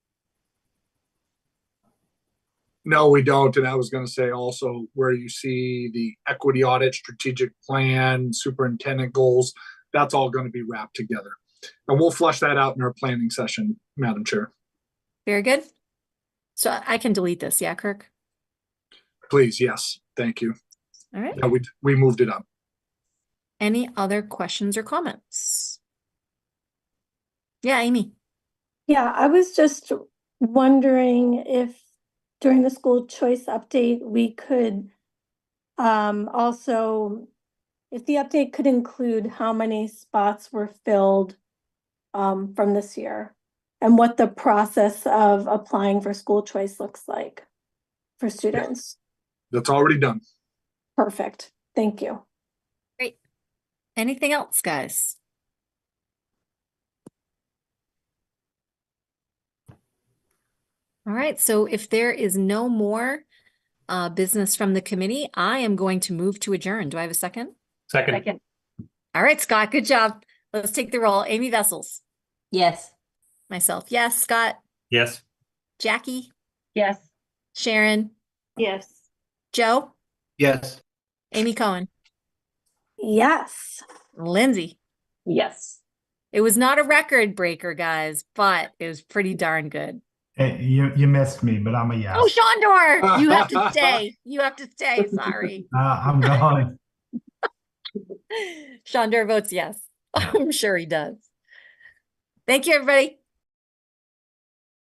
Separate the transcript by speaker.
Speaker 1: No, we don't. And I was going to say also where you see the equity audit, strategic plan, superintendent goals, that's all going to be wrapped together. And we'll flush that out in our planning session, Madam Chair.
Speaker 2: Very good. So I- I can delete this, yeah, Kirk?
Speaker 1: Please, yes, thank you.
Speaker 2: All right.
Speaker 1: Yeah, we, we moved it up.
Speaker 2: Any other questions or comments? Yeah, Amy?
Speaker 3: Yeah, I was just wondering if during the school choice update, we could um, also, if the update could include how many spots were filled um, from this year and what the process of applying for school choice looks like for students.
Speaker 1: That's already done.
Speaker 3: Perfect. Thank you.
Speaker 2: Anything else, guys? All right, so if there is no more uh business from the committee, I am going to move to adjourn. Do I have a second?
Speaker 4: Second,
Speaker 5: Second,
Speaker 2: All right, Scott, good job. Let's take the roll. Amy Vessels,
Speaker 5: yes.
Speaker 2: myself, yes, Scott,
Speaker 4: yes.
Speaker 2: Jackie,
Speaker 5: Yes.
Speaker 2: Sharon,
Speaker 5: Yes.
Speaker 2: Joe,
Speaker 4: Yes.
Speaker 2: Amy Cohen,
Speaker 3: Yes.
Speaker 2: Lindsay.
Speaker 5: Yes.
Speaker 2: It was not a record breaker, guys, but it was pretty darn good.
Speaker 6: Eh, you you missed me, but I'm a yes.
Speaker 2: Oh, Shondor, you have to stay. You have to stay. Sorry.
Speaker 6: Uh, I'm gone.
Speaker 2: Shondor votes yes. I'm sure he does. Thank you, everybody.